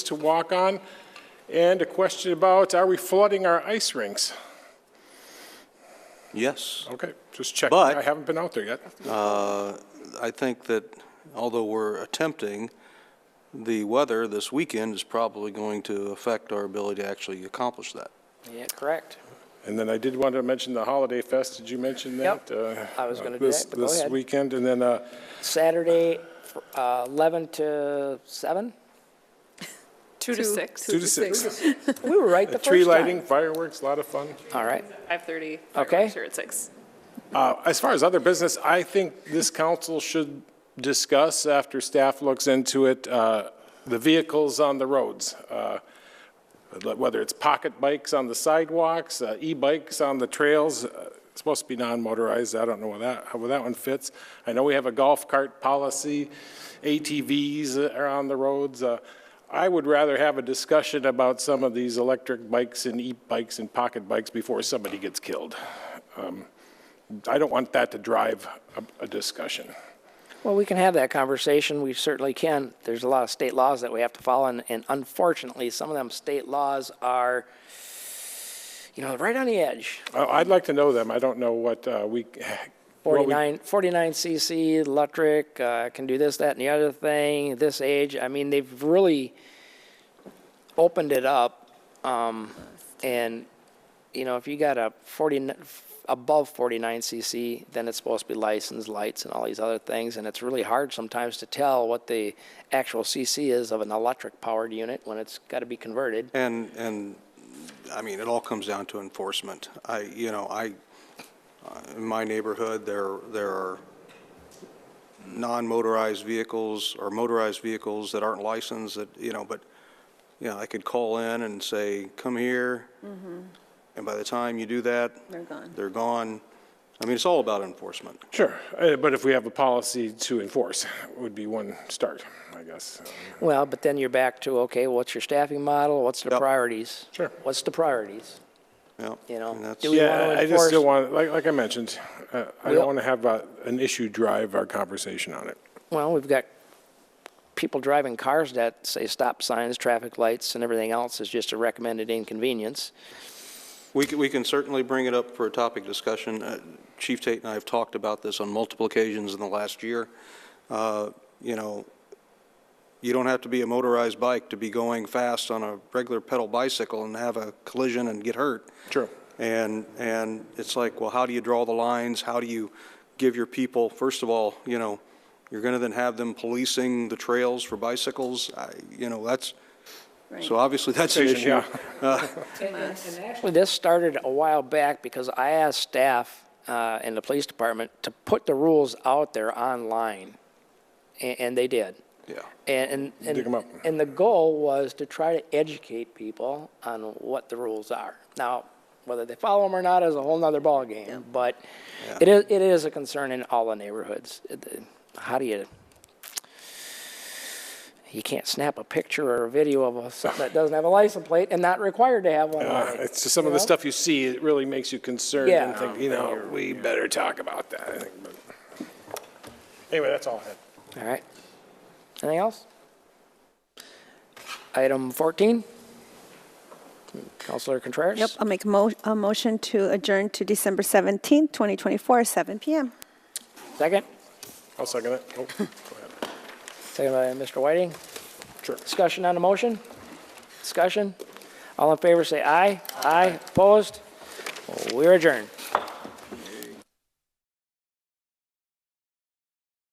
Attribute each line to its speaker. Speaker 1: to walk on, and a question about, are we flooding our ice rinks?
Speaker 2: Yes.
Speaker 1: Okay, just checking.
Speaker 2: But-
Speaker 1: I haven't been out there yet.
Speaker 2: Uh, I think that although we're attempting, the weather this weekend is probably going to affect our ability to actually accomplish that.
Speaker 3: Yeah, correct.
Speaker 1: And then I did want to mention the Holiday Fest. Did you mention that?
Speaker 3: Yep.
Speaker 1: Uh,
Speaker 3: I was gonna do
Speaker 1: this-
Speaker 3: that, but go
Speaker 1: This
Speaker 3: ahead.
Speaker 1: weekend, and then, uh,
Speaker 3: Saturday, fr- uh, 11 to 7?
Speaker 4: Two to six.
Speaker 1: Two to six.
Speaker 3: We were right the first time.
Speaker 1: tree lighting, fireworks, a lot of fun.
Speaker 3: All right.
Speaker 4: 5:30.
Speaker 3: Okay.
Speaker 4: fireworks are at six.
Speaker 1: Uh, As far as other business, I think this council should discuss, after staff looks into it, uh, the vehicles on the roads, uh, whether it's pocket bikes on the sidewalks, uh, e-bikes on the trails, uh, it's supposed to be non-motorized, I don't know where that, how that one fits. I know we have a golf cart policy, ATVs are on the roads. Uh, I would rather have a discussion about some of these electric bikes and e-bikes and pocket bikes before somebody gets killed. Um, I don't want that to drive a, a discussion.
Speaker 3: Well, we can have that conversation. We certainly can. There's a lot of state laws that we have to follow, and, and unfortunately, some of them state laws are, you know, right on the edge.
Speaker 1: I, I'd like to know them. I don't know what, uh, we. what we-
Speaker 3: 49, 49 cc electric, uh, can do this, that, and the other thing, this age. I mean, they've really opened it up. Um, and, you know, if you got a 40, above 49 cc, then it's supposed to be licensed lights and all these other things. And it's really hard sometimes to tell what the actual cc is of an electric powered unit when it's got to be converted.
Speaker 2: And, and, I mean, it all comes down to enforcement. I, you know, I, uh, in my neighborhood, there, there are non-motorized vehicles or motorized vehicles that aren't licensed that, you know, but, you know, I could call in and say, come here. And by the time you do that. Mm-hmm. They're gone. They're gone. I mean, it's all about enforcement.
Speaker 1: Sure, uh, but if we have a policy to enforce, would be one start, I guess.
Speaker 3: Well, but then you're back to, okay, what's your staffing model? What's the
Speaker 2: Yep.
Speaker 3: priorities?
Speaker 1: Sure.
Speaker 3: What's the priorities?
Speaker 2: Yeah.
Speaker 3: You know,
Speaker 2: And that's-
Speaker 3: do we
Speaker 1: Yeah,
Speaker 3: want
Speaker 1: I
Speaker 3: to
Speaker 1: just
Speaker 3: enforce?
Speaker 1: don't want, like, like I mentioned, uh, I don't
Speaker 3: Well-
Speaker 1: want to have, uh, an issue drive our conversation on it.
Speaker 3: Well, we've got people driving cars that say stop signs, traffic lights, and everything else is just a recommended inconvenience.
Speaker 2: We can, we can certainly bring it up for a topic discussion. Uh, Chief Tate and I have talked about this on multiple occasions in the last year. Uh, You know, you don't have to be a motorized bike to be going fast on a regular pedal bicycle and have a collision and get hurt.
Speaker 1: True.
Speaker 2: And, and it's like, well, how do you draw the lines? How do you give your people, first of all, you know, you're going to then have them policing the trails for bicycles? I- You know, that's, so obviously that's an issue.
Speaker 1: Yeah.
Speaker 3: Actually, this started a while back because I asked staff uh, in the police department to put the rules out there online, a- and they did.
Speaker 2: Yeah.
Speaker 3: And, and,
Speaker 1: Dig 'em up.
Speaker 3: and, and the goal was to try to educate people on what the rules are. Now, whether they follow them or not is a whole nother ballgame, but it is, it is a concern in all the neighborhoods. It- How do you, you can't snap a picture or a video of a- something that doesn't have a license plate and not required to have one on
Speaker 1: Uh,
Speaker 3: it.
Speaker 1: It's just some of the
Speaker 3: Yeah.
Speaker 1: stuff you see, it really makes you concerned and
Speaker 3: Yeah.
Speaker 1: think, you know, we better talk about that, I think. but- Anyway, that's all I had.
Speaker 3: All right. Anything else? Item 14? Counselor Contreras?
Speaker 5: Yep, I'll make a mo- a motion to adjourn to December 17th, 2024, 7 PM.
Speaker 3: Second?
Speaker 1: I'll second it. Oh, go ahead.
Speaker 3: Second by Mr. Whiting.
Speaker 1: Sure.
Speaker 3: Discussion on the motion? Discussion? All in favor, say aye. Aye. Opposed? We're adjourned.